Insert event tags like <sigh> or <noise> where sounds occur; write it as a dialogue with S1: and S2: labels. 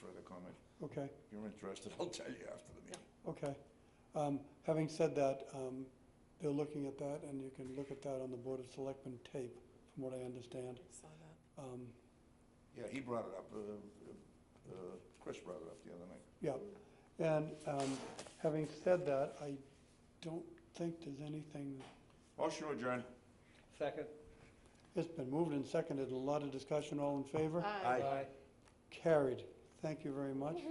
S1: further comment.
S2: Okay,
S1: If you're interested, <laughs> I'll tell you after the meeting.
S2: okay. Um, Having said that, um, they're looking at that, and you can look at that on the Board of Selectmen tape, from what I understand.
S3: Saw that.
S2: Um,
S1: Yeah, he brought it up, uh, uh, Chris brought it up the other night.
S2: Yeah, and um, having said that, I don't think there's anything,
S1: Motion adjourned.
S4: Second.
S2: it's been moved and seconded, a lot of discussion, all in favor?
S3: Aye.
S2: Carried. Thank you very much.